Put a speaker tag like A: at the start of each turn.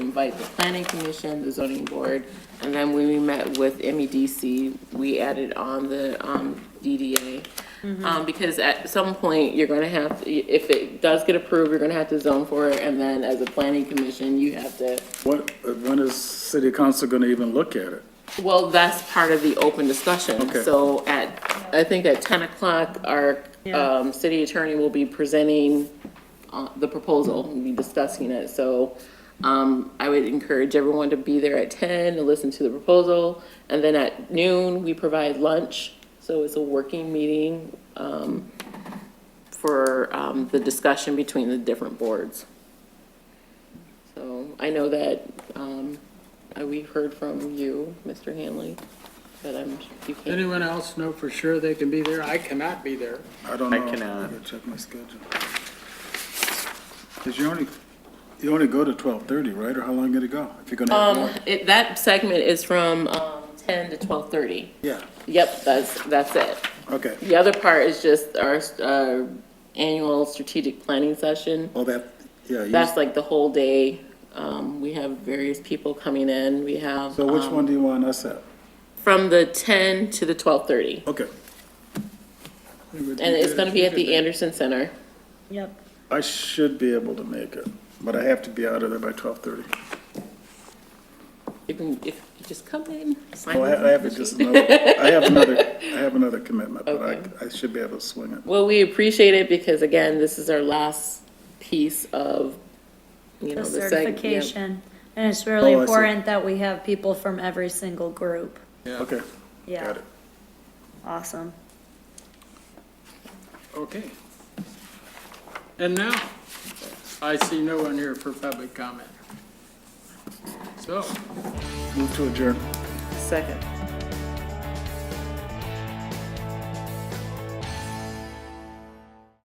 A: invite the planning commission, the zoning board, and then when we met with MEDC, we added on the um, DDA. Um, Because at some point, you're going to have, if it does get approved, you're going to have to zone for it, and then as a planning commission, you have to
B: When, when is city council gonna even look at it?
A: Well, that's part of the open discussion.
B: Okay.
A: So at, I think at 10 o'clock, our um, city attorney will be presenting uh, the proposal, we'll be discussing it. So um, I would encourage everyone to be there at 10 and listen to the proposal. And then at noon, we provide lunch, so it's a working meeting um, for um, the discussion between the different boards. So I know that um, uh, we've heard from you, Mr. Hanley, but I'm, you can't.
C: Anyone else know for sure they can be there? I cannot be there.
B: I don't
D: I
B: know.
D: cannot.
B: gotta Check my schedule. Cause you only, you only go to twelve thirty, right? Or how long did it go? If you're gonna have more?
A: Um, It- That segment is from um, 10 to 12:30.
B: Yeah,
A: Yep, that's, that's it.
B: okay.
A: The other part is just our uh, annual strategic planning session.
B: Well, that, yeah. you-
A: That's like the whole day. Um, We have various people coming in. We have.
B: So which
A: um,
B: one do you want us at?
A: From the 10 to the 12:30.
B: Okay.
A: And it's going to be at the Anderson Center.
E: Yep.
B: I should be able to make it, but I have to be out of there by twelve thirty.
A: You can, if, just come in. sign
B: Well, Oh, I I have just another, I have another, I have another commitment, but I, I should be able to swing it.
A: Well, we appreciate it because again, this is our last piece of, you know, the
E: The
A: seg- yeah.
E: certification. And it's really
B: Oh, I see.
E: important that we have people from every single group.
B: Okay,
E: Yeah,
B: got it.
E: awesome.
C: Okay. And now, I see no one here for public comment. So,
B: Move to adjourn.
A: Second.